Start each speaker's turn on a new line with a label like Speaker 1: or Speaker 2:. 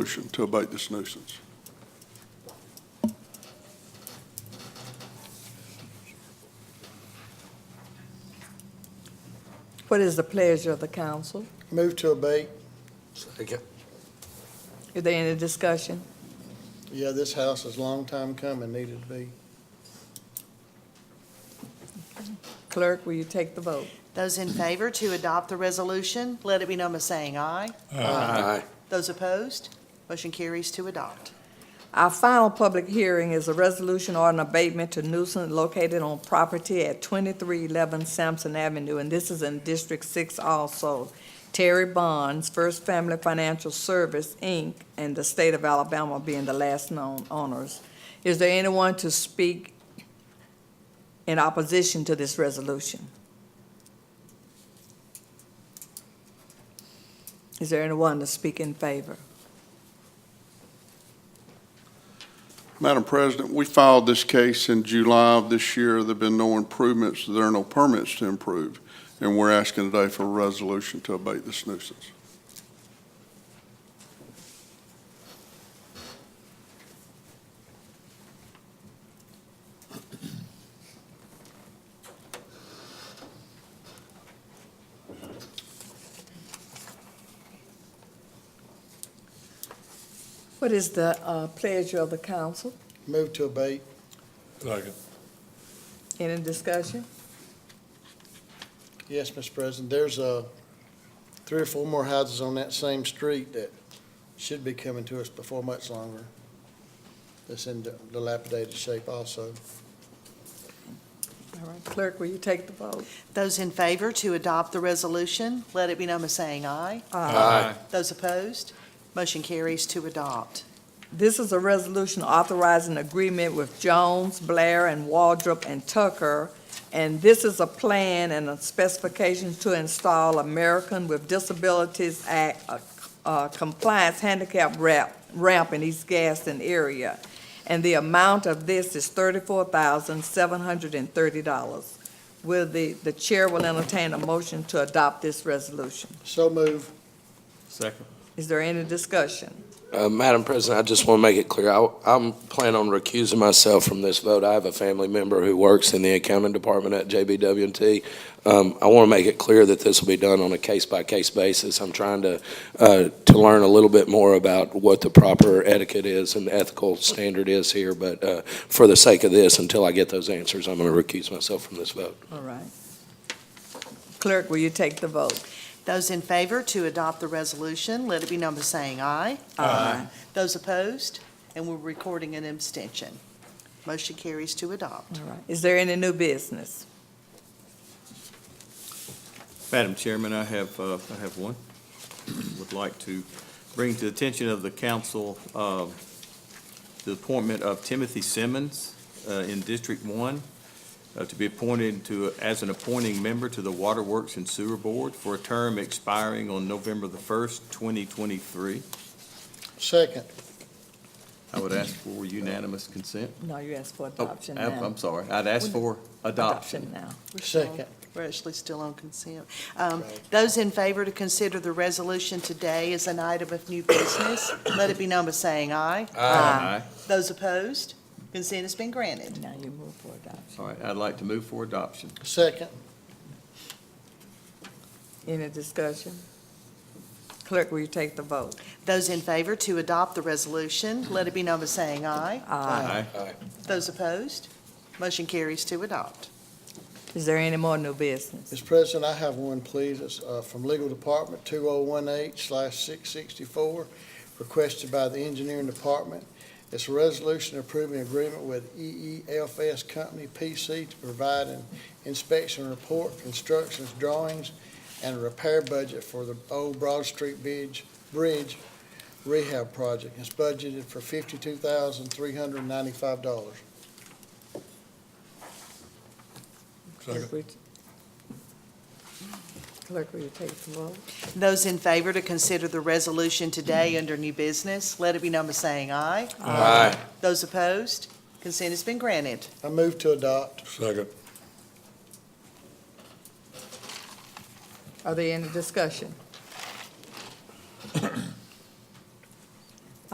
Speaker 1: Motion to abate this nuisance.
Speaker 2: What is the pleasure of the council?
Speaker 3: Move to abate.
Speaker 4: Second.
Speaker 2: Is there any discussion?
Speaker 3: Yeah, this house is long time coming, needed to be.
Speaker 2: Clerk, will you take the vote?
Speaker 5: Those in favor to adopt the resolution, let it be known by saying aye.
Speaker 4: Aye.
Speaker 5: Those opposed, motion carries to adopt.
Speaker 2: Our final public hearing is a resolution or an abatement to nuisance located on property at 2311 Sampson Avenue, and this is in District 6 also. Terry Bonds, First Family Financial Service, Inc., and the state of Alabama being the last known owners. Is there anyone to speak in opposition to this resolution? Is there anyone to speak in favor?
Speaker 1: Madam President, we filed this case in July of this year. There've been no improvements, there are no permits to improve, and we're asking today for a resolution to abate this nuisance.
Speaker 2: What is the uh, pleasure of the council?
Speaker 3: Move to abate.
Speaker 4: Second.
Speaker 2: Any discussion?
Speaker 3: Yes, Mr. President, there's uh three or four more houses on that same street that should be coming to us before much longer. That's in dilapidated shape also.
Speaker 2: All right, clerk, will you take the vote?
Speaker 5: Those in favor to adopt the resolution, let it be known by saying aye.
Speaker 4: Aye.
Speaker 5: Those opposed, motion carries to adopt.
Speaker 2: This is a resolution authorizing agreement with Jones, Blair, and Waldrop and Tucker, and this is a plan and a specification to install American with Disabilities Act uh, uh, compliance handicap ramp, ramp in East Gaston area, and the amount of this is thirty-four thousand, seven hundred and thirty dollars. Will the, the chair will entertain a motion to adopt this resolution.
Speaker 3: So move.
Speaker 6: Second.
Speaker 2: Is there any discussion?
Speaker 4: Uh, Madam President, I just want to make it clear, I, I'm planning on recusing myself from this vote. I have a family member who works in the accounting department at JBW&T. Um, I want to make it clear that this will be done on a case-by-case basis. I'm trying to, uh, to learn a little bit more about what the proper etiquette is and ethical standard is here, but, uh, for the sake of this, until I get those answers, I'm going to recuse myself from this vote.
Speaker 2: All right. Clerk, will you take the vote?
Speaker 5: Those in favor to adopt the resolution, let it be known by saying aye.
Speaker 6: Uh-huh.
Speaker 2: Aye.
Speaker 5: Those opposed, and we're recording an abstention. Motion carries to adopt.
Speaker 2: All right. Is there any new business?
Speaker 6: Madam Chairman, I have, uh, I have one. Would like to bring to the attention of the council, uh, the appointment of Timothy Simmons, uh, in District One, uh, to be appointed to, as an appointing member to the Waterworks and Sewer Board for a term expiring on November the first, twenty twenty-three.
Speaker 3: Second.
Speaker 6: I would ask for unanimous consent.
Speaker 2: No, you asked for
Speaker 6: Oh,
Speaker 2: adoption
Speaker 6: I'm-
Speaker 2: now.
Speaker 6: I'm sorry. I'd ask for adoption.
Speaker 2: now.
Speaker 5: We're still-
Speaker 3: Second.
Speaker 5: We're actually still on consent. Um, Those in favor to consider the resolution today as an item of new business, let it be known by saying aye.
Speaker 6: Aye.
Speaker 5: Those opposed, consent has been granted.
Speaker 2: Now you move for adoption.
Speaker 6: All right, I'd like to move for adoption.
Speaker 3: Second.
Speaker 2: Any discussion? Clerk, will you take the vote?
Speaker 5: Those in favor to adopt the resolution, let it be known by saying aye.
Speaker 6: Aye.
Speaker 5: Those opposed, motion carries to adopt.
Speaker 2: Is there any more new business?
Speaker 3: Mr. President, I have one, please. It's uh, from Legal Department, 2018/664, requested by the Engineering Department. It's a resolution approving agreement with E EEFS Company PC to provide an inspection report, constructions, drawings, and a repair budget for the old Broad Street Bridge Bridge rehab project. It's budgeted for $52,395.
Speaker 2: Clerk, will you- Clerk, will you take the vote?
Speaker 5: Those in favor to consider the resolution today under new business, let it be known by saying aye.
Speaker 4: Aye.
Speaker 5: Those opposed, consent has been granted.
Speaker 3: I move to adopt.
Speaker 4: Second.
Speaker 2: Are there any discussion?